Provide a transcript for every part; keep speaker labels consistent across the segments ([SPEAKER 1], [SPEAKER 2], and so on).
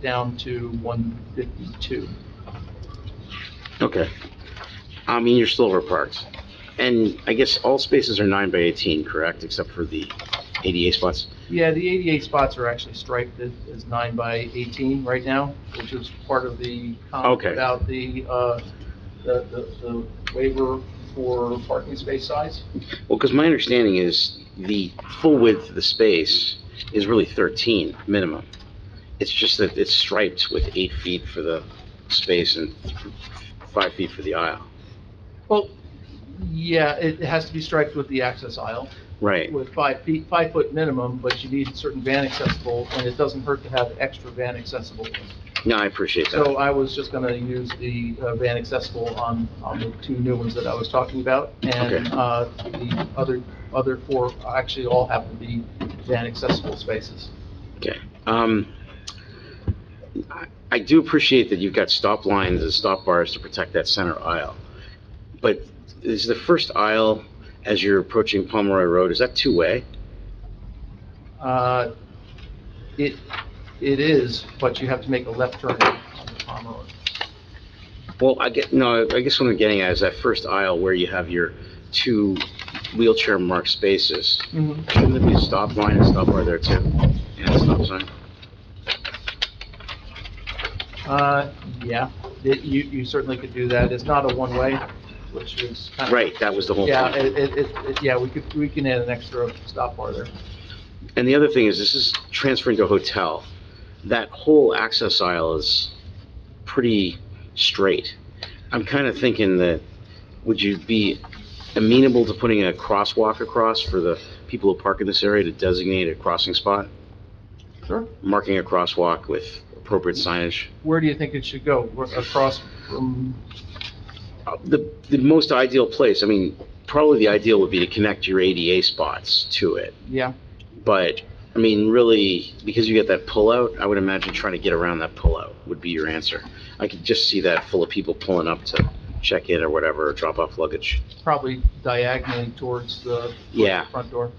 [SPEAKER 1] down to 152.
[SPEAKER 2] Okay. I mean, your silver parks. And I guess all spaces are nine by 18, correct, except for the ADA spots?
[SPEAKER 1] Yeah, the 88 spots are actually striped as- as 9 by 18 right now, which is part of the comment
[SPEAKER 2] Okay.
[SPEAKER 1] about the, uh, the- the the waiver for parking space size.
[SPEAKER 2] Well, because my understanding is the full width of the space is really 13 minimum. It's just that it's striped with eight feet for the space and five feet for the aisle.
[SPEAKER 1] Well, yeah, it has to be striped with the access aisle
[SPEAKER 2] Right.
[SPEAKER 1] with five feet, five foot minimum, but you need certain van accessible, and it doesn't hurt to have extra van accessible.
[SPEAKER 2] No, I appreciate that.
[SPEAKER 1] So I was just going to use the uh, van accessible on, on the two new ones that I was talking about. And
[SPEAKER 2] Okay.
[SPEAKER 1] uh, the other, other four actually all have to be van accessible spaces.
[SPEAKER 2] Um, I- I do appreciate that you've got stop lines and stop bars to protect that center aisle. But is the first aisle, as you're approaching Pomeroy Road, is that two-way?
[SPEAKER 1] Uh, It, it is, but you have to make a left turn on the Pomeroy.
[SPEAKER 2] Well, I get, no, I guess what I'm getting at is that first aisle where you have your two wheelchair-marked spaces. Shouldn't there be a stop line and stop bar there too? And a stop sign?
[SPEAKER 1] Uh, Yeah, it- you, you certainly could do that. It's not a one-way, which is kind of.
[SPEAKER 2] Right, that was the whole
[SPEAKER 1] Yeah,
[SPEAKER 2] point.
[SPEAKER 1] it, it- it, it- yeah, we could, we can add an extra stop bar there.
[SPEAKER 2] And the other thing is, this is transferring to a hotel. That whole access aisle is pretty straight. I'm kind of thinking that, would you be amenable to putting a crosswalk across for the people who park in this area to designate a crossing spot?
[SPEAKER 1] Sure.
[SPEAKER 2] Marking a crosswalk with appropriate signage?
[SPEAKER 1] Where do you think it should go? We're Across from
[SPEAKER 2] Uh, The, the most ideal place, I mean, probably the ideal would be to connect your ADA spots to it.
[SPEAKER 1] Yeah,
[SPEAKER 2] But, I mean, really, because you get that pullout, I would imagine trying to get around that pullout would be your answer. I could just see that full of people pulling up to check in or whatever, or drop off luggage.
[SPEAKER 1] probably diagonally towards the
[SPEAKER 2] Yeah,
[SPEAKER 1] front door.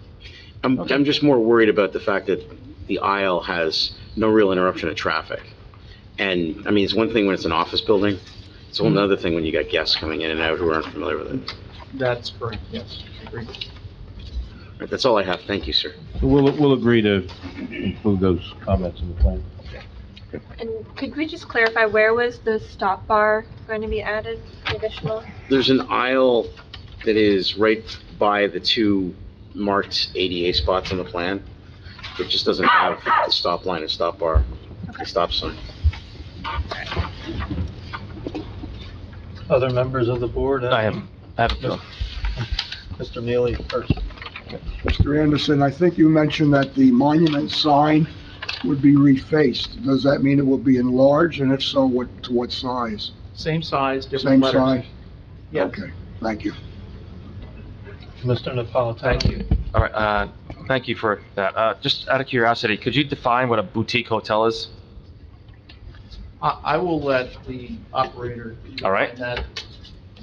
[SPEAKER 2] I'm,
[SPEAKER 1] Okay.
[SPEAKER 2] I'm just more worried about the fact that the aisle has no real interruption of traffic. And, I mean, it's one thing when it's an office building, it's a whole nother thing when you got guests coming in and out who aren't familiar with it.
[SPEAKER 1] That's correct, yes, agreed.
[SPEAKER 2] All right, That's all I have, thank you, sir.
[SPEAKER 3] We'll, we'll agree to include those comments in the plan.
[SPEAKER 4] And could we just clarify, where was the stop bar going to be added additional?
[SPEAKER 2] There's an aisle that is right by the two marked ADA spots on the plan. It just doesn't have the stop line and stop bar, the stop sign.
[SPEAKER 5] Other members of the board?
[SPEAKER 6] I have, I have, no.
[SPEAKER 5] Mr. Neely first.
[SPEAKER 7] Mr. Anderson, I think you mentioned that the monument sign would be refaced. Does that mean it will be enlarged, and if so, what, to what size?
[SPEAKER 1] Same size, different
[SPEAKER 7] Same
[SPEAKER 1] letters.
[SPEAKER 7] size?
[SPEAKER 1] Yeah.
[SPEAKER 7] Okay, thank you.
[SPEAKER 5] Mr. Napolitano?
[SPEAKER 1] Thank you.
[SPEAKER 6] all right, uh, thank you for that. Uh, just out of curiosity, could you define what a boutique hotel is?
[SPEAKER 1] I, I will let the operator.
[SPEAKER 6] All right.
[SPEAKER 1] define that.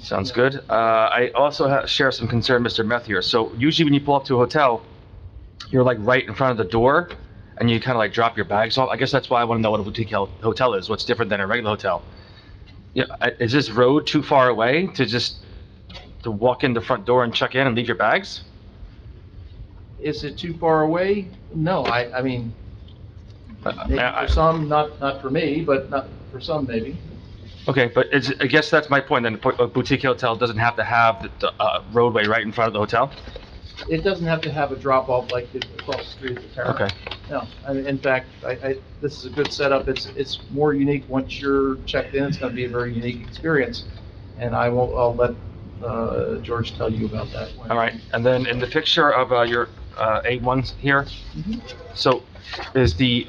[SPEAKER 6] Sounds good. Uh, I also ha- share some concern, Mr. Meth here. So usually when you pull up to a hotel, you're like right in front of the door and you kind of like drop your bags off. I guess that's why I want to know what a boutique hel- hotel is, what's different than a regular hotel. Yeah, I- is this road too far away to just, to walk in the front door and check in and leave your bags?
[SPEAKER 1] Is it too far away? No, I, I mean,
[SPEAKER 6] I- I-
[SPEAKER 1] maybe
[SPEAKER 6] Uh, I-
[SPEAKER 1] for some, not, not for me, but not, for some maybe.
[SPEAKER 6] Okay, but it's, I guess that's my point, then a boutique hotel doesn't have to have the- the uh, roadway right in front of the hotel?
[SPEAKER 1] It doesn't have to have a drop off like the- across the street at the Terrace.
[SPEAKER 6] Okay,
[SPEAKER 1] No, I mean, in fact, I, I, this is a good setup, it's, it's more unique, once you're checked in, it's gonna be a very unique experience, and I will, I'll let, uh, George tell you about that. when-
[SPEAKER 6] all right, and then in the picture of uh, your uh, A1 here,
[SPEAKER 1] Mhm.
[SPEAKER 6] so is the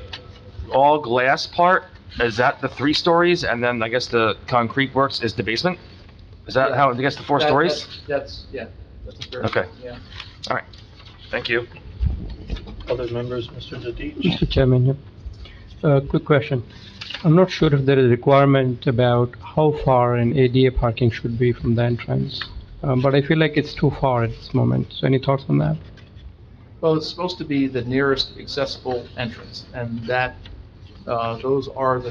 [SPEAKER 6] all glass part, is that the three stories, and then I guess the concrete works is the basement? Is that
[SPEAKER 1] Yeah.
[SPEAKER 6] how, I guess the four
[SPEAKER 1] That-
[SPEAKER 6] stories?
[SPEAKER 1] that- That's, yeah, that's fair.
[SPEAKER 6] Okay.
[SPEAKER 1] Yeah.
[SPEAKER 6] Thank you.
[SPEAKER 5] Other members, Mr. Didich?
[SPEAKER 8] Mr. Chairman, yeah. Uh, quick question. I'm not sure if there is a requirement about how far an ADA parking should be from the entrance, Um, but I feel like it's too far at this moment. So any thoughts on that?
[SPEAKER 1] Well, it's supposed to be the nearest accessible entrance, and that Uh, Those are the